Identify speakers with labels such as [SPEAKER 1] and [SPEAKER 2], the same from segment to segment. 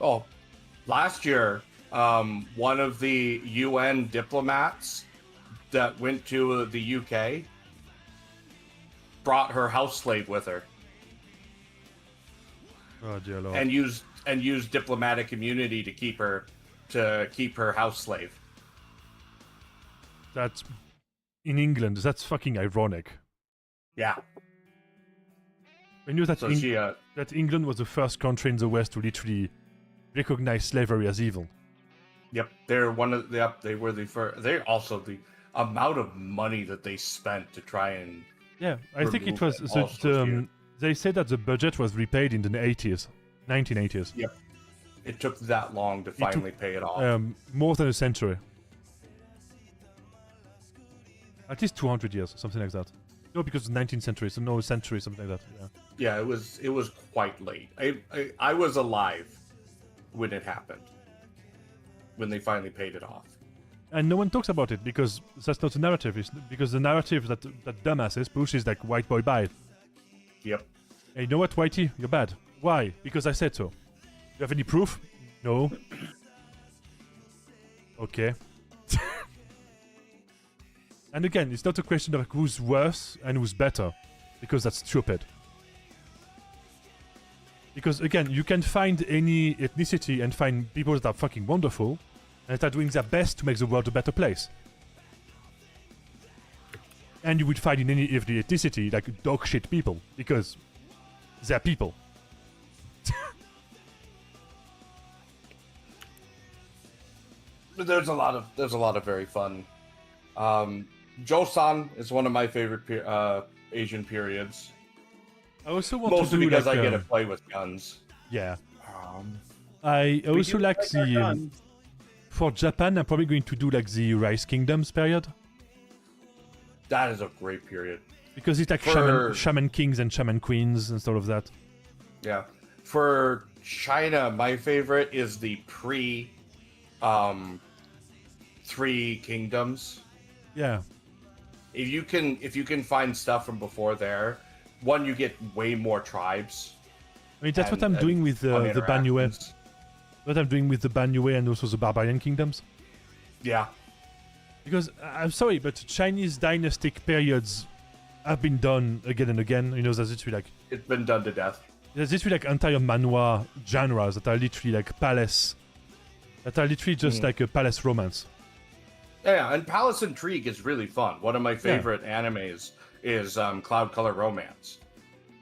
[SPEAKER 1] oh, last year, um, one of the UN diplomats that went to the UK brought her house slave with her
[SPEAKER 2] Oh dear lord.
[SPEAKER 1] and used and used diplomatic immunity to keep her to keep her house slave.
[SPEAKER 2] that's in England. That's fucking ironic.
[SPEAKER 1] Yeah,
[SPEAKER 2] I knew that
[SPEAKER 1] so
[SPEAKER 2] Eng-
[SPEAKER 1] she uh,
[SPEAKER 2] that England was the first country in the West to literally recognize slavery as evil.
[SPEAKER 1] Yep, they're one of the. Yep, they were the first. They're also the amount of money that they spent to try and.
[SPEAKER 2] Yeah, I think it
[SPEAKER 1] Remove
[SPEAKER 2] was.
[SPEAKER 1] it
[SPEAKER 2] The,
[SPEAKER 1] also here.
[SPEAKER 2] um, they said that the budget was repaid in the 80s, 1980s,
[SPEAKER 1] It took that long to finally pay it off.
[SPEAKER 2] um, more than a century. At least 200 years, something like that. No, because 19th century, so no century, something like that. Yeah.
[SPEAKER 1] yeah, it was it was quite late. I, I I was alive when it happened. When they finally paid it off.
[SPEAKER 2] and no one talks about it because that's not the narrative. It's because the narrative that that dumbasses push is like white boy bad.
[SPEAKER 1] Yep.
[SPEAKER 2] Hey, you know what, Whitey? You're bad. Why? Because I said so. You have any proof? No. okay. and again, it's not a question of like, who's worse and who's better, because that's stupid. Because again, you can find any ethnicity and find people that are fucking wonderful and that are doing their best to make the world a better place. And you would find in any every ethnicity like dog shit people, because they're people.
[SPEAKER 1] But there's a lot of there's a lot of very fun. Um, Joseon is one of my favorite pe- uh, Asian periods,
[SPEAKER 2] I also want
[SPEAKER 1] mostly
[SPEAKER 2] to do
[SPEAKER 1] because
[SPEAKER 2] like,
[SPEAKER 1] I get to
[SPEAKER 2] um,
[SPEAKER 1] play with guns.
[SPEAKER 2] Yeah.
[SPEAKER 1] Um,
[SPEAKER 2] I
[SPEAKER 3] We
[SPEAKER 2] also
[SPEAKER 3] do
[SPEAKER 2] like
[SPEAKER 3] like our
[SPEAKER 2] the um,
[SPEAKER 3] guns.
[SPEAKER 2] for Japan. I'm probably going to do like the Rice Kingdoms period
[SPEAKER 1] that is a great period.
[SPEAKER 2] because it's like shaman,
[SPEAKER 1] For-
[SPEAKER 2] shaman kings and shaman queens and sort of that.
[SPEAKER 1] Yeah. For China, my favorite is the pre um three kingdoms.
[SPEAKER 2] Yeah.
[SPEAKER 1] If you can if you can find stuff from before there, one you get way more tribes.
[SPEAKER 2] I mean that's what
[SPEAKER 1] and-
[SPEAKER 2] I'm
[SPEAKER 1] and
[SPEAKER 2] doing with
[SPEAKER 1] fun
[SPEAKER 2] uh, the Banyue.
[SPEAKER 1] interactions.
[SPEAKER 2] What I'm doing with the Banyue and also the Barbarian Kingdoms.
[SPEAKER 1] Yeah.
[SPEAKER 2] Because uh, I'm sorry, but Chinese dynastic periods have been done again and again. You know, there's literally like
[SPEAKER 1] It's been done to death.
[SPEAKER 2] there's literally like entire manhwa genres that are literally like palace, that are literally just like a palace romance.
[SPEAKER 1] Yeah, and Palace Intrigue is really fun. One of my favorite animes is um, Cloud Color Romance.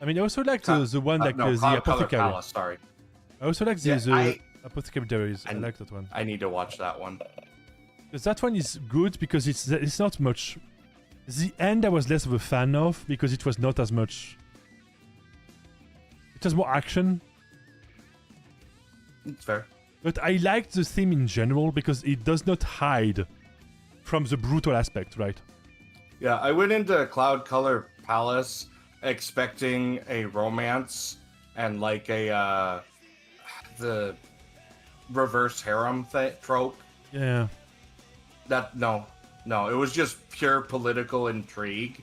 [SPEAKER 2] I mean, I also like the,
[SPEAKER 1] Cloud-
[SPEAKER 2] the one
[SPEAKER 1] uh,
[SPEAKER 2] like
[SPEAKER 1] no,
[SPEAKER 2] uh, the
[SPEAKER 1] Cloud Color
[SPEAKER 2] apothecary.
[SPEAKER 1] Palace. Sorry,
[SPEAKER 2] I also like the,
[SPEAKER 1] Yeah,
[SPEAKER 2] the
[SPEAKER 1] I-
[SPEAKER 2] apothecary diaries. I
[SPEAKER 1] And-
[SPEAKER 2] like that one.
[SPEAKER 1] I need to watch that one.
[SPEAKER 2] 'Cause that one is good because it's it's not much. The end I was less of a fan of because it was not as much. It was more action,
[SPEAKER 1] It's fair.
[SPEAKER 2] but I liked the theme in general because it does not hide from the brutal aspect, right?
[SPEAKER 1] Yeah, I went into Cloud Color Palace expecting a romance and like a uh the reverse harem th- trope.
[SPEAKER 2] Yeah.
[SPEAKER 1] That no, no, it was just pure political intrigue,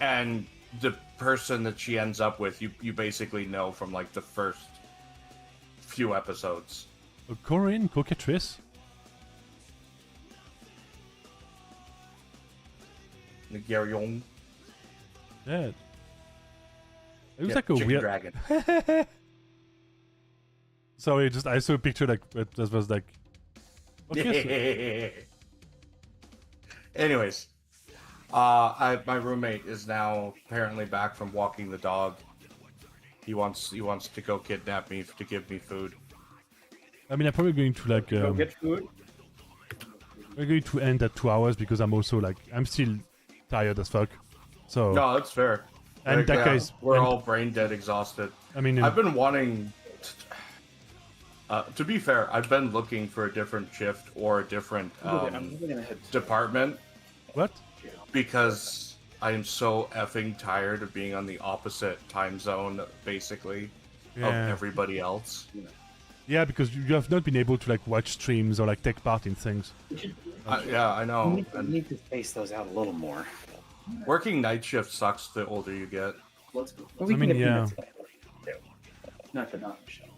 [SPEAKER 1] and the person that she ends up with, you you basically know from like the first few episodes.
[SPEAKER 2] A Korean cockatrice.
[SPEAKER 1] Nigerian
[SPEAKER 2] Yeah. It was
[SPEAKER 1] yeah,
[SPEAKER 2] like a
[SPEAKER 1] chicken
[SPEAKER 2] weird.
[SPEAKER 1] dragon.
[SPEAKER 2] Sorry, just I saw a picture like that that was like. Okay, so-
[SPEAKER 1] Anyways, uh, I, my roommate is now apparently back from walking the dog. He wants he wants to go kidnap me to give me food.
[SPEAKER 2] I mean, I'm probably going to like.
[SPEAKER 3] Go
[SPEAKER 2] Um,
[SPEAKER 3] get food.
[SPEAKER 2] We're going to end at two hours because I'm also like I'm still tired as fuck. So
[SPEAKER 1] No, that's fair.
[SPEAKER 2] And
[SPEAKER 1] Like,
[SPEAKER 2] that
[SPEAKER 1] yeah,
[SPEAKER 2] guy's-
[SPEAKER 1] we're
[SPEAKER 2] and-
[SPEAKER 1] all brain dead, exhausted.
[SPEAKER 2] I mean,
[SPEAKER 1] I've been wanting. Uh, to be fair, I've been looking for a different shift or a different um,
[SPEAKER 3] I'm gonna head to
[SPEAKER 1] department
[SPEAKER 2] what?
[SPEAKER 1] because I am so effing tired of being on the opposite time zone, basically,
[SPEAKER 2] Yeah.
[SPEAKER 1] of everybody else.
[SPEAKER 2] Yeah, because you you have not been able to like watch streams or like take part in things.
[SPEAKER 1] I, yeah, I
[SPEAKER 3] You
[SPEAKER 1] know.
[SPEAKER 3] need,
[SPEAKER 1] And
[SPEAKER 3] to space those out a little more.
[SPEAKER 1] working night shift sucks the older you get.
[SPEAKER 3] Let's go. Well, we
[SPEAKER 2] I mean,
[SPEAKER 3] can get
[SPEAKER 2] yeah.
[SPEAKER 3] peanuts. Not the not Michelle.